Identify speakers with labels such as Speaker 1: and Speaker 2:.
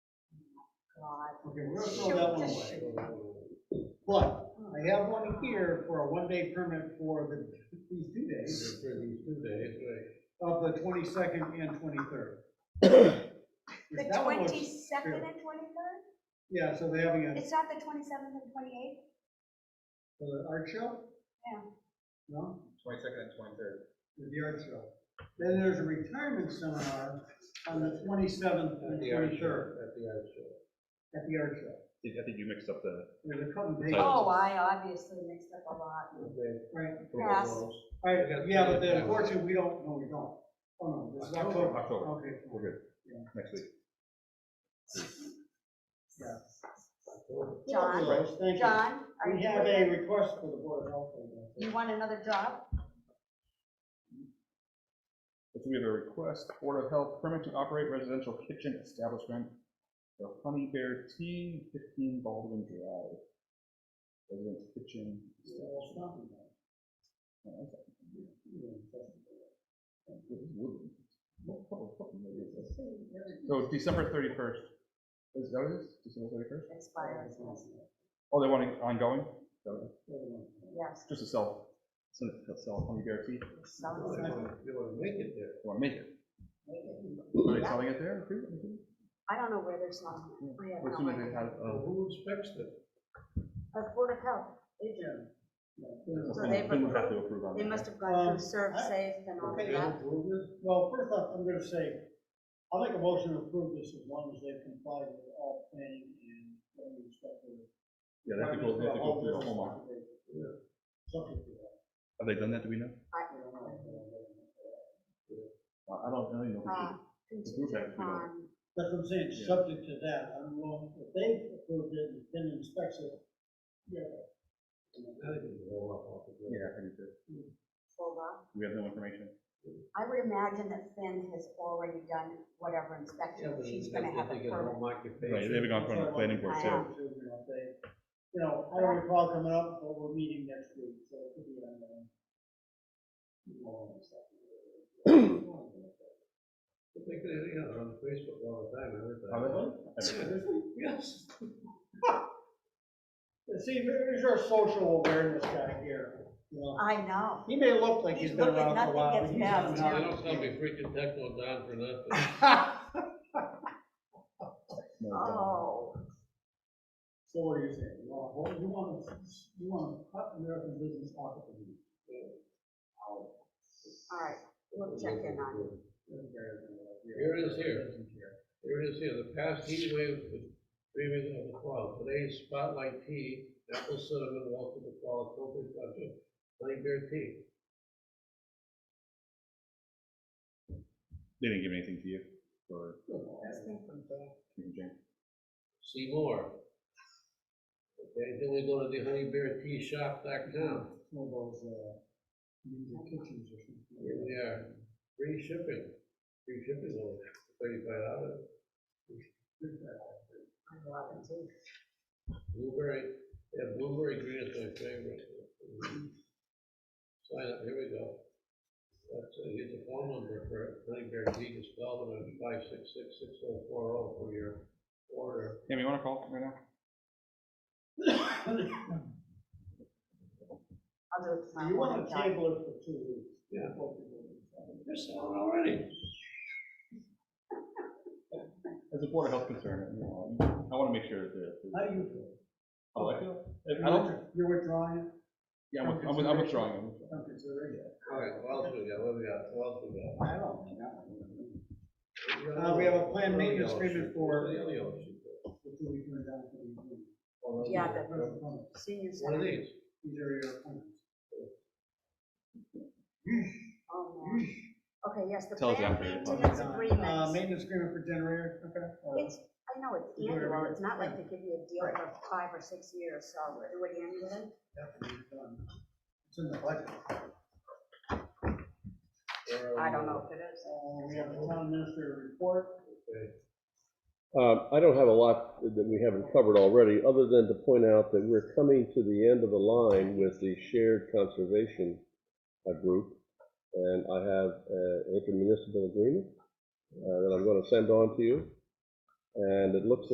Speaker 1: God.
Speaker 2: Okay, we're gonna throw that one away.
Speaker 1: Sure.
Speaker 2: But I have one here for a one-day permit for the, these two days,
Speaker 3: For these two days, right?
Speaker 2: of the twenty-second and twenty-third.
Speaker 1: The twenty-second and twenty-third?
Speaker 2: Yeah, so they're having a,
Speaker 1: It's not the twenty-seventh and twenty-eighth?
Speaker 2: for the art show?
Speaker 1: Yeah.
Speaker 2: No,
Speaker 4: Twenty-second and twenty-third.
Speaker 2: for the art show. Then there's a retirement seminar on the twenty-seventh
Speaker 3: At
Speaker 2: and
Speaker 3: the art show,
Speaker 2: twenty-third
Speaker 3: At the art show.
Speaker 2: at the art show.
Speaker 5: I think you mixed up the,
Speaker 2: There's a couple days.
Speaker 1: Oh, I obviously mixed up a lot.
Speaker 3: Okay.
Speaker 2: Right,
Speaker 1: Pass.
Speaker 2: all right, yeah, but then unfortunately, we don't, no, we don't. Oh, no, this is October.
Speaker 5: October.
Speaker 2: Okay.
Speaker 5: we're good,
Speaker 2: Yeah.
Speaker 5: next week.
Speaker 2: Yes,
Speaker 1: John,
Speaker 2: Thank you.
Speaker 1: John, are
Speaker 2: We
Speaker 1: you
Speaker 2: have
Speaker 1: with
Speaker 2: a
Speaker 1: it?
Speaker 2: request for the Board of Health. I guess.
Speaker 1: You want another job?
Speaker 5: If we have a request, Board of Health permit to operate residential kitchen establishment for Honey Bear Tea, fifteen Baldwin Drive. Residence kitchen. establishment. Oh, okay. Oh, good, it's wooden. What color fucking wood is this? So December thirty-first, is that what it is, December thirty-first?
Speaker 1: Expires, yes.
Speaker 5: Oh, they want it ongoing? So,
Speaker 1: Yes,
Speaker 5: Just to sell, so to sell Honey Bear Tea,
Speaker 1: it sounds
Speaker 3: They wanna they wanna make it there.
Speaker 5: they want to make it,
Speaker 1: amazing.
Speaker 5: are they selling it there too?
Speaker 1: I don't know where there's one. I have
Speaker 5: Or
Speaker 1: no
Speaker 5: soon as they
Speaker 1: idea.
Speaker 5: have,
Speaker 3: Uh,
Speaker 5: uh,
Speaker 3: who inspects it?
Speaker 1: The Board of Health, they do. So
Speaker 5: we
Speaker 1: they've
Speaker 5: would have
Speaker 1: approved-
Speaker 5: to approve on
Speaker 1: They
Speaker 5: that.
Speaker 1: must have gone
Speaker 2: Um,
Speaker 1: through serve
Speaker 2: I-
Speaker 1: safe and all
Speaker 3: They
Speaker 1: that. uh,
Speaker 3: approve it?
Speaker 2: Well, first off, I'm gonna say, I'll make a motion to approve this as long as they comply with all planning and zoning inspector.
Speaker 5: Yeah, they have to go, they have to go through the whole market.
Speaker 2: Yeah. Subject to that.
Speaker 5: Have they done that, do we know?
Speaker 2: I don't know if they're-
Speaker 5: Uh, I don't, I don't even know. if we
Speaker 1: Uh,
Speaker 5: did.
Speaker 1: Contingent
Speaker 5: Approve that, we don't-
Speaker 1: upon,
Speaker 2: That's what I'm saying,
Speaker 5: Yeah.
Speaker 2: subject to that, I'm willing, if they approved it and then inspects it, yeah.
Speaker 3: I think it's all up off the-
Speaker 5: Yeah, I think so.
Speaker 1: hold on.
Speaker 5: We have no information.
Speaker 1: I would imagine that Finn has already done whatever
Speaker 3: Yeah,
Speaker 1: inspection,
Speaker 3: but
Speaker 1: she's
Speaker 3: if
Speaker 1: gonna
Speaker 3: they
Speaker 1: have a
Speaker 3: get
Speaker 1: permit.
Speaker 3: home occupation-
Speaker 5: Right, they've gone in front of the planning board
Speaker 1: too.
Speaker 2: You know, they- you know, I don't recall coming up, but we're meeting next week, so it could be on the. Well, it's not-
Speaker 3: If They could, yeah, they're on Facebook all the time, I heard that.
Speaker 2: Yes. See, there's our social awareness guy here, you know,
Speaker 1: I know.
Speaker 2: he may look like he's
Speaker 1: He's
Speaker 2: been
Speaker 1: looking-
Speaker 2: around for a
Speaker 1: nothing
Speaker 2: while, but
Speaker 1: gets
Speaker 2: he's not.
Speaker 1: past
Speaker 3: They don't tell me freaking techno down for nothing.
Speaker 5: No, it's not.
Speaker 1: Oh,
Speaker 2: So what are you saying, you want, well, you want, to- you want to cut American business off of the.
Speaker 1: all right, we'll check in on it.
Speaker 3: Here it is here. Here it is here, the past heat wave, the dreaming of the fall, today's spotlight tea, apple cinnamon, welcome to fall, appropriate budget, plain beer tea.
Speaker 5: They didn't give anything to you or
Speaker 1: This came from Dad.
Speaker 5: you can change.
Speaker 3: See more. Okay, then we go to the honey bear tea shop dot com.
Speaker 2: One of those, uh, ninja uh, kitchens or
Speaker 3: Here
Speaker 2: something.
Speaker 3: we are, free shipping, free shipping on thirty-five dollars.
Speaker 1: I love it too.
Speaker 3: Blueberry, yeah, blueberry green is my favorite. Sign up, here we go. That's, uh, here's the phone number for Honey Bear Tea, just call them at five six six six oh four oh for your order.
Speaker 5: Tim, you wanna call right now?
Speaker 1: I'll do it tomorrow.
Speaker 2: You
Speaker 1: morning,
Speaker 2: want to
Speaker 1: John.
Speaker 2: table it for two weeks.
Speaker 3: Yeah.
Speaker 2: before we do it.
Speaker 3: They're selling already.
Speaker 5: As a board of health concern, you know, I wanna make sure that the.
Speaker 2: How do you feel?
Speaker 5: Oh, I feel.
Speaker 2: You're
Speaker 5: I don't,
Speaker 2: withdraw- You're withdrawing it
Speaker 5: yeah, I'm with- I'm, with- I'm withdrawing. I'm
Speaker 2: from
Speaker 5: withdrawing.
Speaker 2: consideration?
Speaker 3: All right, what else we got, what we got, what else we got?
Speaker 2: I don't know. Uh, we have a planned maintenance agreement for-
Speaker 3: What are the other options?
Speaker 2: Before we turn it down for the.
Speaker 3: Oh, those
Speaker 1: Yeah,
Speaker 3: are-
Speaker 2: Those are comments.
Speaker 1: Senior
Speaker 3: What are
Speaker 1: center.
Speaker 3: these?
Speaker 2: These are your comments.
Speaker 1: Oh, man. Okay, yes, the
Speaker 5: Tell us
Speaker 1: plan
Speaker 5: after you're done.
Speaker 1: maintenance
Speaker 2: Uh,
Speaker 1: agreement.
Speaker 2: maintenance agreement for generator, okay?
Speaker 1: It's, I know it's
Speaker 2: You do it every
Speaker 1: annual,
Speaker 2: year.
Speaker 1: it's not like
Speaker 2: Yeah.
Speaker 1: they give you a deal for five or six years, so do it annually.
Speaker 2: It's in the budget.
Speaker 3: Where are
Speaker 1: I
Speaker 3: we?
Speaker 1: don't know if it is.
Speaker 2: Uh, we have the town administrator report.
Speaker 3: Okay.
Speaker 6: Uh, I don't have a lot that we haven't covered already, other than to point out that we're coming to the end of the line with the shared conservation uh, group. And I have an uh, intermunicipal agreement uh, that I'm going to send on to you. And it looks